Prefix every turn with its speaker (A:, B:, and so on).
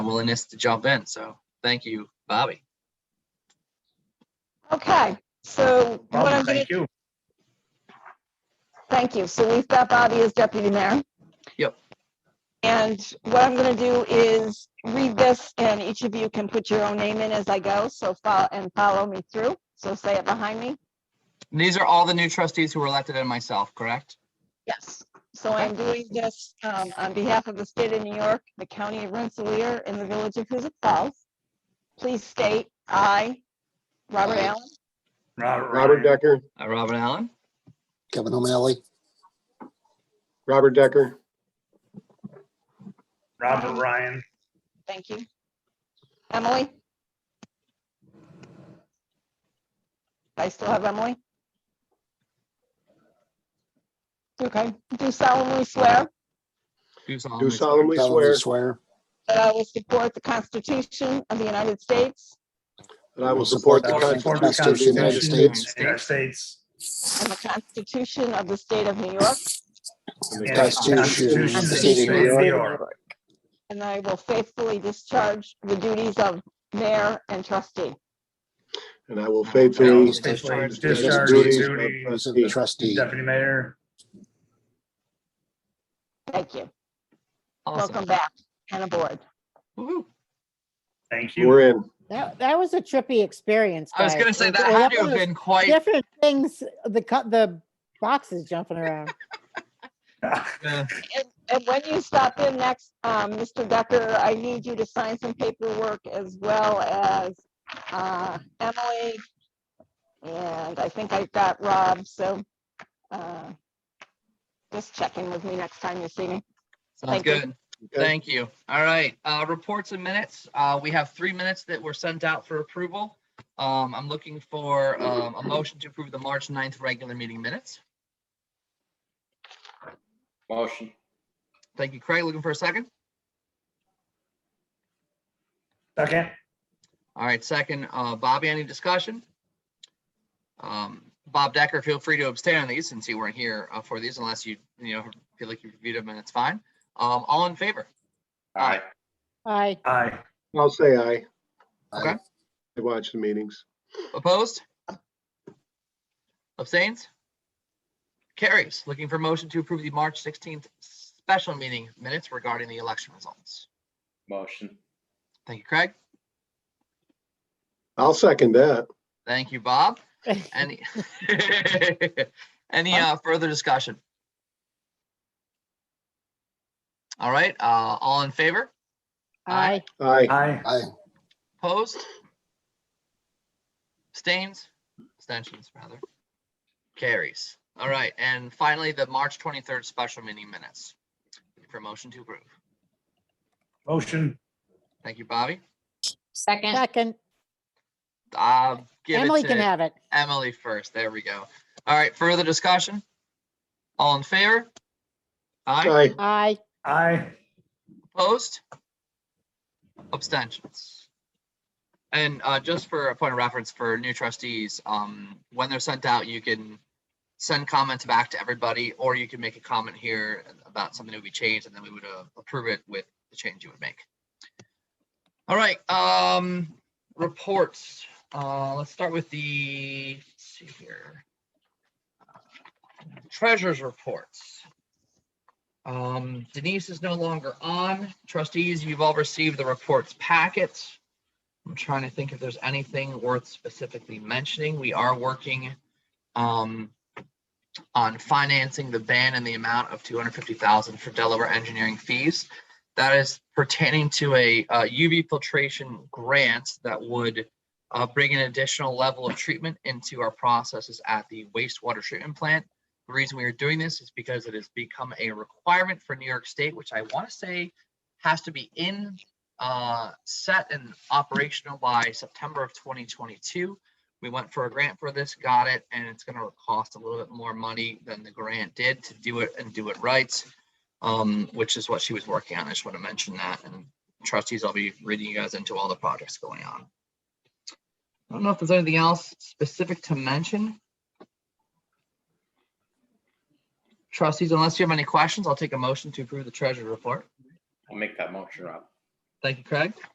A: willingness to jump in. So thank you, Bobby.
B: Okay, so what
C: Well,
B: I'm gonna,
C: thank you.
B: thank you. So we've got Bobby as deputy mayor.
A: Yep.
B: And what I'm gonna do is read this and each of you can put your own name in as I go, so follow and follow me through. So say it behind me.
A: And these are all the new trustees who were elected and myself, correct?
B: Yes. So I'm doing this um, on behalf of the state of New York, the county of Rensselaer, and the village of Huzik Falls. Please state I, Robert Allen,
D: Robert Decker,
A: Uh, Robin Allen,
E: Kevin O'Malley,
D: Robert Decker,
C: Robert Ryan,
B: thank you. Emily? I still have Emily? Okay, do solemnly swear
A: do
D: do
A: solemnly swear
D: solemnly swear
E: solemnly swear
B: that I will support the Constitution of the United States
D: that I will support the
E: I will
C: for
D: Constitution.
C: the
E: support Constitution of the United
C: Constitution of the
E: States.
C: United States.
B: and the Constitution of the state of New York,
D: and
C: and
D: the
C: the
D: Constitution of the State of New York,
C: York.
B: And I will faithfully discharge the duties of mayor and trustee.
D: And I will
A: I will
D: faithfully
A: faithfully
D: discharge
C: discharge
D: the
C: the
D: duties
C: duties
D: of
E: as
D: trustee.
E: a trustee.
C: Deputy Mayor,
B: Thank you. Welcome
A: Awesome.
B: back and aboard.
A: Woo-hoo.
C: thank you.
D: We're in.
F: That, that was a trippy experience.
A: I was
F: guys.
A: gonna say
F: It-
A: that
F: well,
A: had to
F: was
A: have been quite,
F: Different things, the cut, the boxes jumping around.
A: uh,
B: And, and when you stop in next, um, Mr. Decker, I need you to sign some paperwork as well as, uh, Emily. And I think I've got Rob, so, uh, just check in with me next time you see me.
A: sounds
B: Thank you.
A: good. Thank you. All right, uh, reports and minutes. Uh, we have three minutes that were sent out for approval. Um, I'm looking for, um, a motion to approve the March 9th regular meeting minutes.
G: Motion.
A: Thank you, Craig. Looking for a second?
C: Second,
A: All right, second, uh, Bobby, any discussion? Um, Bob Decker, feel free to abstain on these since you weren't here uh, for these unless you, you know, feel like you reviewed them and it's fine. Um, all in favor?
G: Aye.
F: I,
C: aye,
D: I'll say aye.
A: Okay.
D: I watch the meetings.
A: Opposed? Abstains? Carries. Looking for motion to approve the March 16th special meeting minutes regarding the election results.
G: Motion.
A: Thank you, Craig.
D: I'll second that.
A: Thank you, Bob. Any, any uh, further discussion? All right, uh, all in favor?
F: I,
D: Aye.
C: aye,
E: I,
A: Opposed? Abstains? Abstentions, rather. Carries. All right, and finally, the March 23rd special meeting minutes. For motion to approve.
C: motion,
A: Thank you, Bobby.
H: Second,
F: second,
A: Uh, give
F: Emily
A: it
F: can
A: to
F: have it.
A: Emily first. There we go. All right, further discussion? All in favor? Aye.
D: Aye.
F: I,
C: aye,
A: Opposed? Abstentions. And uh, just for a point of reference for new trustees, um, when they're sent out, you can send comments back to everybody, or you can make a comment here about something that we changed, and then we would uh, approve it with the change you would make. All right, um, reports. Uh, let's start with the, let's see here. Treasurer's reports. Um, Denise is no longer on. Trustees, you've all received the reports packets. I'm trying to think if there's anything worth specifically mentioning. We are working um, on financing the ban in the amount of 250,000 for Delaware engineering fees. That is pertaining to a uh, UV filtration grant that would uh, bring an additional level of treatment into our processes at the wastewater treatment plant. The reason we are doing this is because it has become a requirement for New York State, which I want to say has to be in, uh, set and operational by September of 2022. We went for a grant for this, got it, and it's going to cost a little bit more money than the grant did to do it and do it right, um, which is what she was working on. I just want to mention that and trustees, I'll be reading you guys into all the projects going on. I don't know if there's anything else specific to mention. Trustees, unless you have any questions, I'll take a motion to approve the treasurer report.
G: I'll make that motion, Rob.
A: Thank you, Craig.